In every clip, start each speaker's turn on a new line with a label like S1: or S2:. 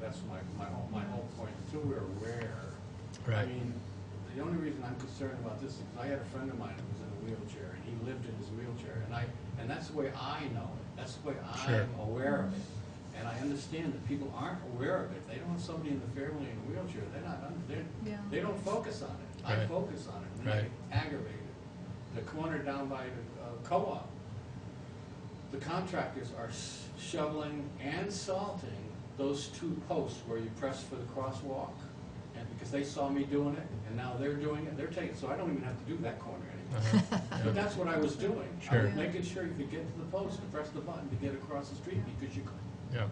S1: that's my, my whole, my whole point, until we're aware. I
S2: Right.
S1: mean, the only reason I'm concerned about this is I had a friend of mine who was in a wheelchair, and he lived in his wheelchair, and I, and that's the way I know it, that's the way
S2: Sure.
S1: I'm aware of it. And I understand that people aren't aware of it, they don't have somebody in the family in a wheelchair, they're not, un-
S3: Yeah.
S1: they're, they don't focus on it. I
S2: Right.
S1: focus on it, and
S2: Right.
S1: I aggravate it. The corner down by the uh, co-op, the contractors are s- shoveling and salting those two posts where you press for the crosswalk. And because they saw me doing it, and now they're doing it, they're taking, so I don't even have to do that corner anymore.
S2: Uh-huh.
S1: But that's what I was doing. I
S2: Sure.
S1: was making sure you could get to the post and press the button to get across the street because you, couldn't.
S2: Yeah,
S1: it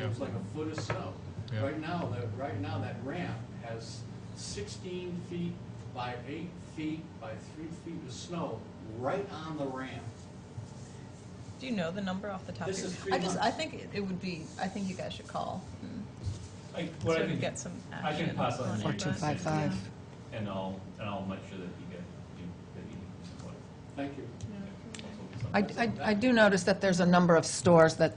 S2: yeah,
S1: was like a foot of snow.
S2: Yeah.
S1: Right now, that, right now, that ramp has sixteen feet by eight feet by three feet of snow right on the ramp.
S4: Do you know the number off the top
S1: This
S4: of
S1: is
S4: your
S1: three
S3: I
S1: months.
S3: just, I think it- it would be, I think you guys should call. and
S5: I, what I
S4: sort
S5: can,
S4: of get some
S5: I
S4: action?
S5: can pass
S4: on
S5: on
S4: it,
S5: to you.
S4: but-
S6: 4255.
S5: And I'll, and I'll make sure that you get, you, that you support it.
S1: Thank you.
S5: Yeah, also with some-
S6: I, I- I do notice that there's a number of stores that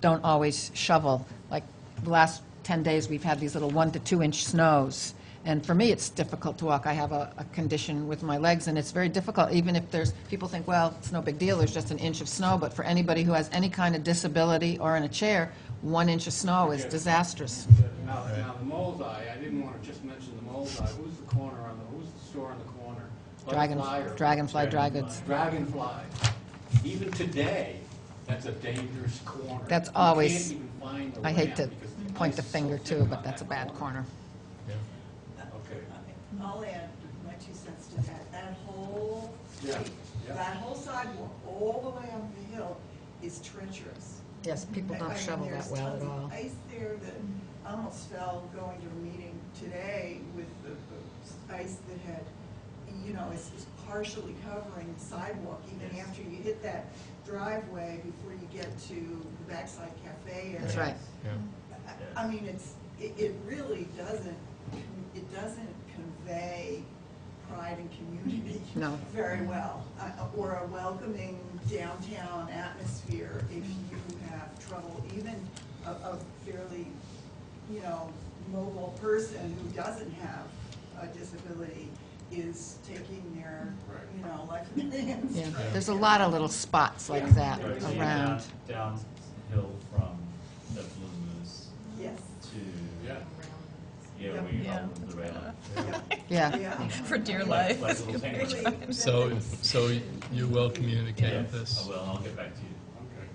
S6: don't always shovel. Like, the last 10 days, we've had these little one to two inch snows. And for me, it's difficult to walk. I have a, a condition with my legs, and it's very difficult, even if there's, people think, well, it's no big deal, there's just an inch of snow. But for anybody who has any kind of disability or in a chair, one inch of snow is
S1: Yeah.
S6: disastrous.
S1: Now, now the Mole's Eye, I didn't want to just mention the Mole's Eye, who's the corner on the, who's the store on the corner?
S6: Dragon,
S1: Butterfly or-
S6: dragonfly dry goods.
S1: Dragonfly. Even today, that's a dangerous corner.
S6: That's
S1: You
S6: always-
S1: can't even find the
S6: I hate
S1: ramp
S6: to
S1: because the
S6: point the
S1: ice is so
S6: finger
S1: thick
S6: too,
S1: on
S6: but that's a
S1: that
S6: bad corner.
S2: yeah.
S1: Okay,
S7: I'll add my two cents to that. That whole
S1: Yeah,
S7: street,
S1: yeah.
S7: that whole sidewalk, all the way up the hill is treacherous.
S6: Yes, people
S7: I- I
S6: don't
S7: mean,
S6: shovel that
S7: there's
S6: well at
S7: tons of
S6: all.
S7: Ice there that I almost fell going to a meeting today with the the ice that had, you know, is is partially covering the sidewalk even after you hit that driveway before you get to the backside cafe area.
S6: That's right.
S2: Yeah,
S7: I- I mean, it's, it, it really doesn't, it doesn't convey pride and community.
S6: No.
S7: Very well, uh, or a welcoming downtown atmosphere if you have trouble, even a, a fairly, you know, mobile person who doesn't have a disability is taking their,
S1: Right.
S7: you know, life in their hands.
S6: Yeah, there's a lot of little spots like that
S5: Right, so you
S6: around.
S5: Down downhill from the Blue Moose
S7: Yes,
S5: to,
S1: yeah.
S5: yeah, where you
S4: Yeah,
S5: have
S4: that's
S5: the rail.
S4: bad enough.
S6: Yeah,
S7: yeah, yeah.
S4: For dear
S5: Like-
S4: life.
S5: like little
S7: Really,
S5: sandwich.
S7: that's-
S2: So, so you will communicate
S5: Yes,
S2: this?
S5: I will, and Oh, I'll get back to you,
S1: Okay.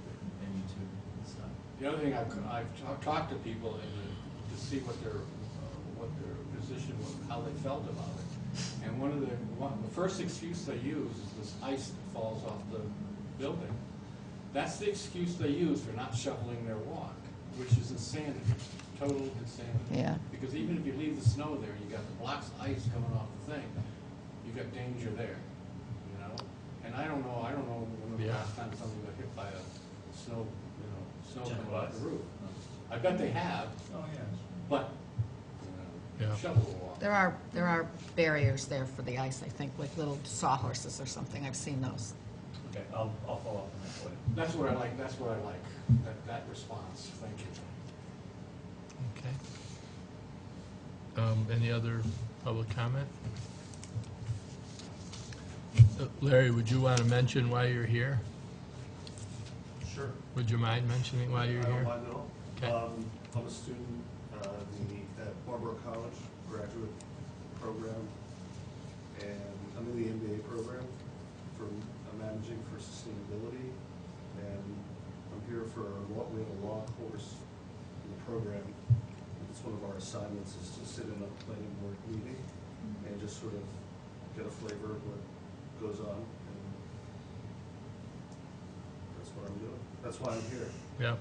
S5: and you too, this time.
S1: The other thing, I've, I've ta- talked to people and to see what their, uh, what their position was, how they felt about it. And one of the, one, the first excuse they use is this ice that falls off the building. That's the excuse they use for not shoveling their walk, which is insanity, total insanity.
S6: Yeah.
S1: Because even if you leave the snow there, you got the blocks of ice coming off the thing, you got danger there, you know? And I don't know, I don't know when the
S2: Yeah.
S1: last time somebody got hit by a snow, you know, snow
S5: Jack
S1: coming off
S5: Wise.
S1: the roof. I bet they have,
S5: Oh, yeah.
S1: but, you know,
S2: Yeah.
S1: shovel walk.
S6: there are, there are barriers there for the ice, I think, like little sawhorses or something, I've seen those.
S5: Okay, I'll, I'll follow up on that for you.
S1: That's what I like, that's what I like, that, that response, thank you.
S2: Okay. Um, Any other public comment? Uh, Larry, would you want to mention why you're here?
S8: Sure.
S2: Would you mind mentioning why you're
S8: I don't
S2: here?
S8: mind at all.
S2: Okay.
S8: Um, I'm a student, uh, the, at Marlboro College graduate program, and I'm in the MBA program for uh, managing for sustainability, and I'm here for a law, we have a law course in the program. It's one of our assignments is to sit in a planning board meeting and just sort of get a flavor of what goes on, and that's what I'm doing. That's why I'm here.
S2: Yeah,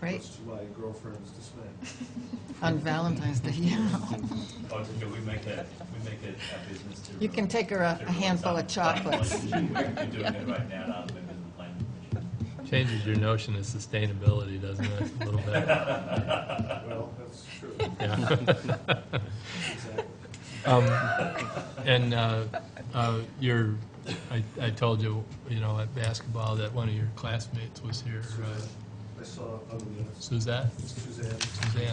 S6: Great,
S8: Much to my girlfriend's dismay.
S6: on Valentine's Day, yeah.
S5: Oh, it's okay, we make it, we make it a business to.
S6: You can take her a-
S5: to
S6: a handful of
S5: release on- on
S6: chocolates.
S5: planning commission. We're doing it right now, not members of the planning commission.
S2: changes your notion of sustainability, doesn't it, a little bit?
S8: Well, that's true,
S2: Yeah.
S8: exactly.
S2: Um, And uh, uh, your, I I told you, you know, at basketball, that one of your classmates was here, uh,
S8: I saw, on the
S2: Suzette,
S8: Suzanne.
S2: Suzanne.